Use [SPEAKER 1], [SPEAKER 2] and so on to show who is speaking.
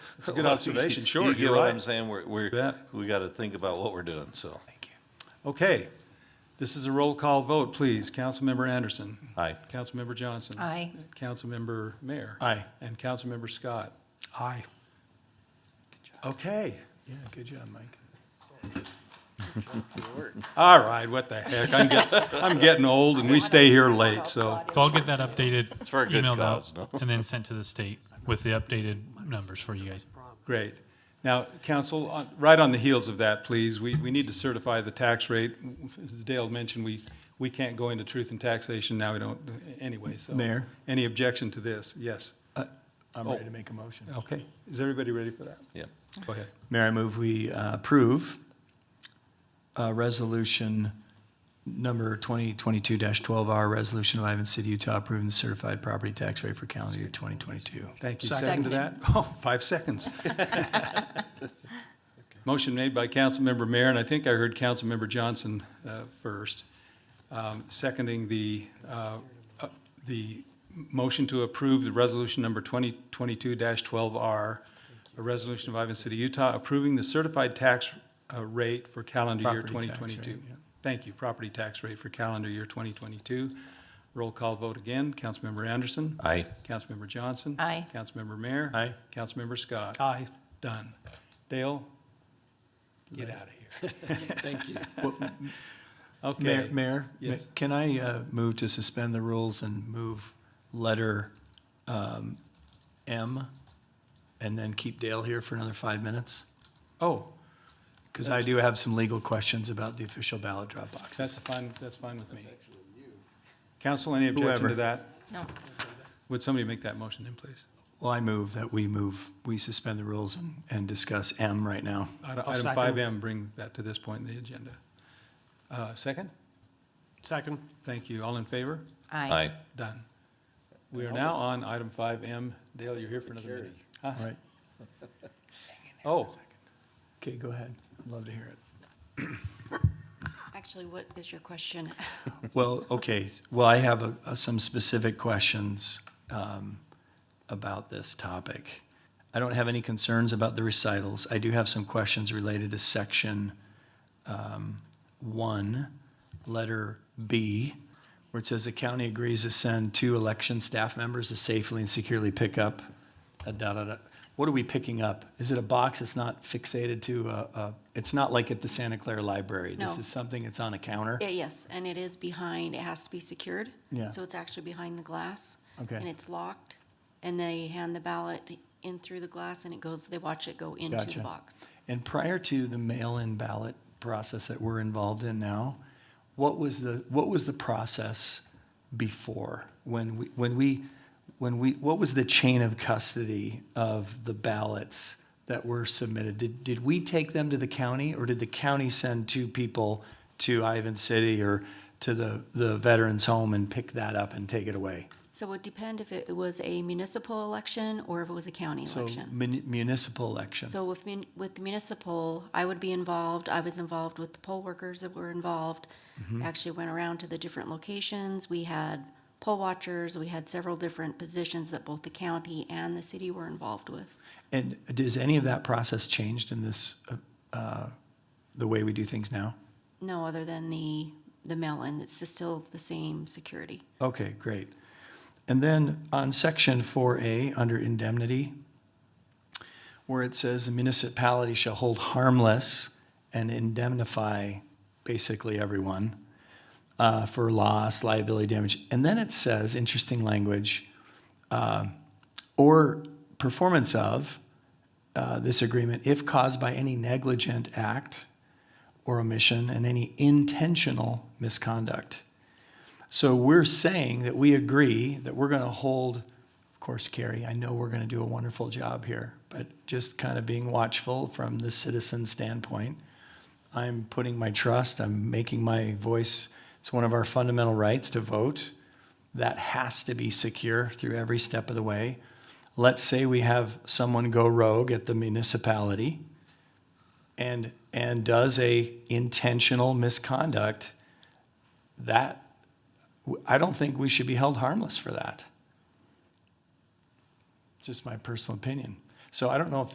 [SPEAKER 1] It's a good observation, sure,
[SPEAKER 2] You get
[SPEAKER 1] you're
[SPEAKER 2] what
[SPEAKER 1] right.
[SPEAKER 2] I'm saying? We're, we're,
[SPEAKER 1] Yeah.
[SPEAKER 2] we gotta think about what we're doing, so.
[SPEAKER 1] Okay, this is a roll call vote, please. Councilmember Anderson.
[SPEAKER 2] Aye.
[SPEAKER 1] Councilmember Johnson.
[SPEAKER 3] Aye.
[SPEAKER 1] Councilmember Mayor.
[SPEAKER 4] Aye.
[SPEAKER 1] And Councilmember Scott.
[SPEAKER 4] Aye.
[SPEAKER 1] Okay,
[SPEAKER 4] Yeah, good job, Mike.
[SPEAKER 1] all right, what the heck, I'm getting, I'm getting old and we stay here late, so.
[SPEAKER 5] So I'll get that updated,
[SPEAKER 2] for a good
[SPEAKER 5] emailed
[SPEAKER 2] cause,
[SPEAKER 5] out,
[SPEAKER 2] no?
[SPEAKER 5] and then sent to the state with the updated numbers for you guys.
[SPEAKER 1] Great. Now, council, on- right on the heels of that, please, we, we need to certify the tax rate. As Dale mentioned, we, we can't go into truth and taxation now, we don't, anyway, so.
[SPEAKER 4] Mayor?
[SPEAKER 1] Any objection to this? Yes.
[SPEAKER 4] I'm
[SPEAKER 1] Oh.
[SPEAKER 4] ready to make a motion.
[SPEAKER 1] Okay, is everybody ready for that?
[SPEAKER 2] Yeah.
[SPEAKER 1] Go ahead.
[SPEAKER 4] Mayor, I move we uh, approve uh, Resolution Number 2022-12R, Resolution of Ivan City, Utah, approving the certified property tax rate for calendar year 2022.
[SPEAKER 1] Thank you. Second
[SPEAKER 3] Second.
[SPEAKER 1] to that? Oh, five seconds. Motion made by Councilmember Mayor, and I think I heard Councilmember Johnson uh, first, um, seconding the, uh, uh, the motion to approve the resolution number 2022-12R, a resolution of Ivan City, Utah, approving the certified tax uh, rate for calendar year
[SPEAKER 4] Property tax rate,
[SPEAKER 1] 2022.
[SPEAKER 4] yeah.
[SPEAKER 1] Thank you, property tax rate for calendar year 2022. Roll call vote again. Councilmember Anderson?
[SPEAKER 2] Aye.
[SPEAKER 1] Councilmember Johnson?
[SPEAKER 3] Aye.
[SPEAKER 1] Councilmember Mayor?
[SPEAKER 4] Aye.
[SPEAKER 1] Councilmember Scott?
[SPEAKER 4] Aye.
[SPEAKER 1] Done. Dale? Get out of here. Thank you.
[SPEAKER 4] Mayor,
[SPEAKER 1] Okay.
[SPEAKER 4] Mayor,
[SPEAKER 1] Yes.
[SPEAKER 4] can I uh, move to suspend the rules and move letter um, M, and then keep Dale here for another five minutes?
[SPEAKER 1] Oh,
[SPEAKER 4] Because I do have some legal questions about the official ballot drop boxes.
[SPEAKER 1] that's fine, that's fine with me. Council, any objection to
[SPEAKER 4] Whoever.
[SPEAKER 1] that?
[SPEAKER 3] No.
[SPEAKER 1] Would somebody make that motion then, please?
[SPEAKER 4] Well, I move that we move, we suspend the rules and, and discuss M right now.
[SPEAKER 1] Item item five M, bring that to this point in the agenda. Uh, Second?
[SPEAKER 6] Second.
[SPEAKER 1] Thank you. All in favor?
[SPEAKER 3] Aye.
[SPEAKER 2] Aye.
[SPEAKER 1] Done. We are now on item five M. Dale, you're here for another minute. Huh?
[SPEAKER 4] Right.
[SPEAKER 1] Oh,
[SPEAKER 4] Okay, go ahead. I'd love to hear it.
[SPEAKER 7] Actually, what is your question?
[SPEAKER 4] Well, okay, s- well, I have a- a- some specific questions um, about this topic. I don't have any concerns about the recitals. I do have some questions related to section um, one, letter B, where it says the county agrees to send two election staff members to safely and securely pick up a da da da. What are we picking up? Is it a box that's not fixated to a, a- it's not like at the Santa Clara Library? This
[SPEAKER 7] No.
[SPEAKER 4] is something that's on a counter?
[SPEAKER 7] Yeah, Yes, and it is behind, it has to be secured.
[SPEAKER 4] Yeah.
[SPEAKER 7] So it's actually behind the glass.
[SPEAKER 4] Okay.
[SPEAKER 7] And it's locked, and they hand the ballot in through the glass, and it goes, they watch it go into
[SPEAKER 4] Gotcha.
[SPEAKER 7] the box.
[SPEAKER 4] And prior to the mail-in ballot process that we're involved in now, what was the, what was the process before? When we, when we, when we, what was the chain of custody of the ballots that were submitted? Did, did we take them to the county or did the county send two people to Ivan City or to the, the veterans home and pick that up and take it away?
[SPEAKER 7] So it would depend if it was a municipal election or if it was a county
[SPEAKER 4] So
[SPEAKER 7] election.
[SPEAKER 4] mun- municipal election.
[SPEAKER 7] So with mun- with municipal, I would be involved, I was involved with the poll workers that were involved. Actually went around to the different locations, we had poll watchers, we had several different positions that both the county and the city were involved with.
[SPEAKER 4] And does any of that process changed in this, uh, the way we do things now?
[SPEAKER 7] No, other than the, the mail-in, it's just still the same security.
[SPEAKER 4] Okay, great. And then on section four A, under indemnity, where it says the municipality shall hold harmless and indemnify basically everyone uh, for loss, liability, damage. And then it says, interesting language, uh, or performance of uh, this agreement if caused by any negligent act or omission and any intentional misconduct. So we're saying that we agree that we're going to hold, of course, Carrie, I know we're going to do a wonderful job here, but just kind of being watchful from the citizen standpoint. I'm putting my trust, I'm making my voice, it's one of our fundamental rights to vote. That has to be secure through every step of the way. Let's say we have someone go rogue at the municipality and, and does a intentional misconduct, that I don't think we should be held harmless for that. It's just my personal opinion. So I don't know if